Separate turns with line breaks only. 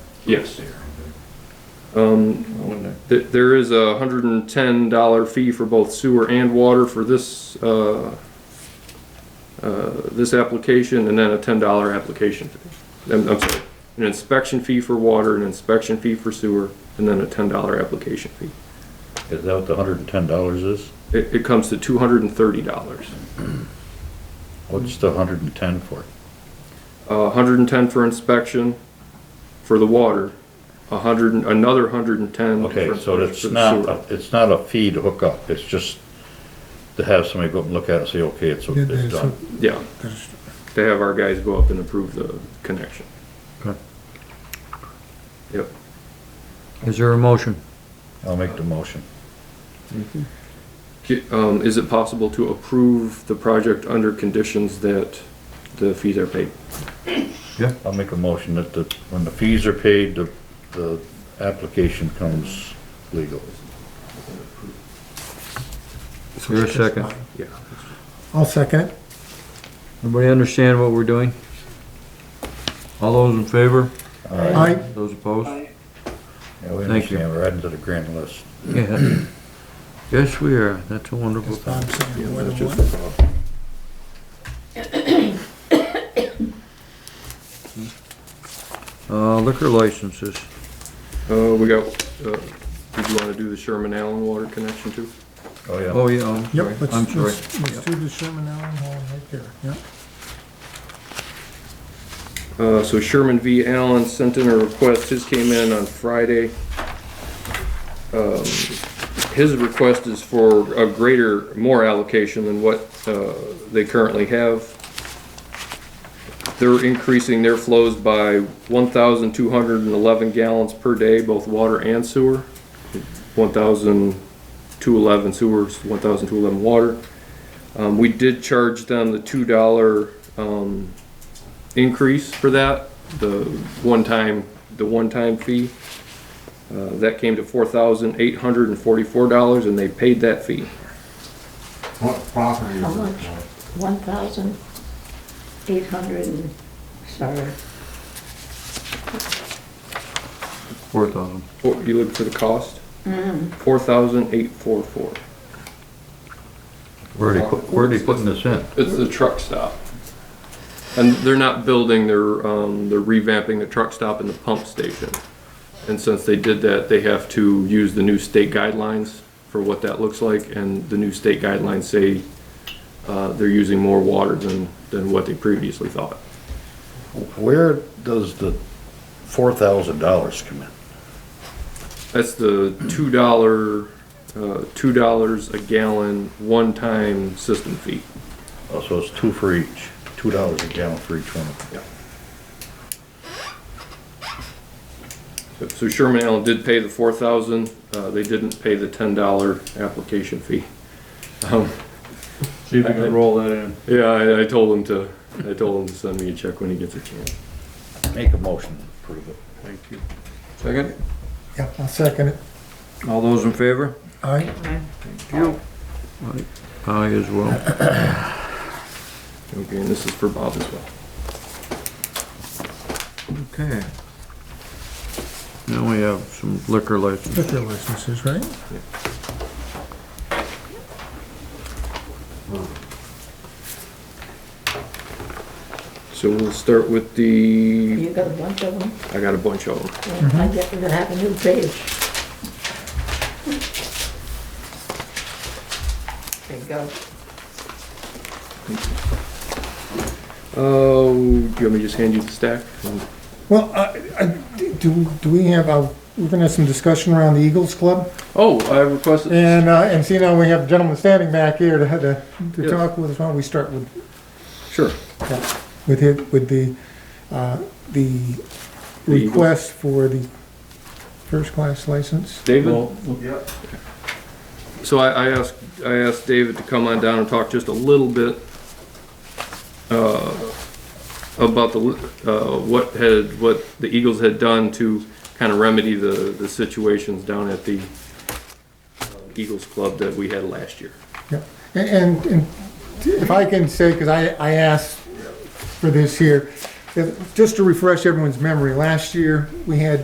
Yes. Um, th- there is a hundred and ten dollar fee for both sewer and water for this, uh, uh, this application, and then a ten dollar application fee. I'm, I'm sorry, an inspection fee for water, an inspection fee for sewer, and then a ten dollar application fee.
Is that what the hundred and ten dollars is?
It, it comes to two hundred and thirty dollars.
What's the hundred and ten for?
Uh, hundred and ten for inspection for the water, a hundred, and- another hundred and ten.
Okay,
for-
so it's
for the
not,
sewer.
a- it's not a fee to hook up, it's just to have somebody go up and look at it and say, okay, it's,
Yeah,
it's
that's
done.
Yeah,
That's-
to have our guys go up and approve the connection.
Okay.
Yep.
Is there a motion?
I'll make the motion.
Ki- Um, is it possible to approve the project under conditions that the fees are paid?
I'll make a motion that the, when the fees are paid, the, the application comes legal.
Is there a second?
Yeah.
I'll second it.
Everybody understand what we're doing? All those in favor?
Aye.
Those opposed?
Yeah, we
Thank you.
understand, we're adding to the grant list.
Yeah. Yes, we are. That's a wonderful
That's what
thing.
I'm saying,
Yeah,
one
that's
and
just-
one.
Uh, liquor licenses.
Uh, we got, uh, did you wanna do the Sherman Allen water connection too?
Oh,
Oh,
yeah.
yeah, I'm sorry.
Yep,
I'm
let's,
sorry.
let's, let's do the Sherman Allen Hall right there, yep.
Uh, so Sherman V. Allen sent in a request, his came in on Friday. Um, His request is for a greater, more allocation than what, uh, they currently have. They're increasing their flows by one thousand two hundred and eleven gallons per day, both water and sewer. One thousand two eleven sewers, one thousand two eleven water. Um, we did charge them the two dollar, um, increase for that, the one-time, the one-time fee. Uh, that came to four thousand eight hundred and forty-four dollars and they paid that fee.
What property
How
is it?
much? One thousand eight hundred and, sorry,
Four thousand.
What, you look for the cost? Four thousand eight four four.
Where are they, put- where are they putting this in?
It's the truck stop. And they're not building, they're, um, they're revamping the truck stop and the pump station. And since they did that, they have to use the new state guidelines for what that looks like, and the new state guidelines say, uh, they're using more water than, than what they previously thought.
Where does the four thousand dollars come in?
That's the two dollar, uh, two dollars a gallon, one-time system fee.
Oh, so it's two for each, two dollars a gallon for each one of them.
So Sherman Allen did pay the four thousand, uh, they didn't pay the ten dollar application fee. Um,
See if
we can
roll that in.
Yeah, I, I told him to, I told him to send me a check when he gets a chance.
Make a motion to approve it.
Thank you. Second?
Yep, I'll second it.
All those in favor?
Aye,
Aye as well.
Okay, and this is for Bob as well.
Okay. Now we have some liquor licenses.
liquor licenses, right?
So we'll start with the,
you got a bunch of them?
I got a bunch of them.
Yeah, I guess we're gonna have a new page. There you go.
Oh, do you want me to just hand you the stack?
Mm-hmm.
Well, I, I, do, do we have a, we're gonna have some discussion around the Eagles Club?
Oh, I requested,
And, uh, and see now we have gentlemen standing back here to, to, to
Yes.
talk with, why don't we start with,
sure.
with it, with the, uh, the
The Eagles.
request for the first-class license?
David?
Yep.
So I, I asked, I asked David to come on down and talk just a little bit, uh, about the, uh, what had, what the Eagles had done to kind of remedy the, the situations down at the uh, Eagles Club that we had last year.
Yep. And- And, and if I can say, because I, I asked for this here, if- just to refresh everyone's memory, last year, we had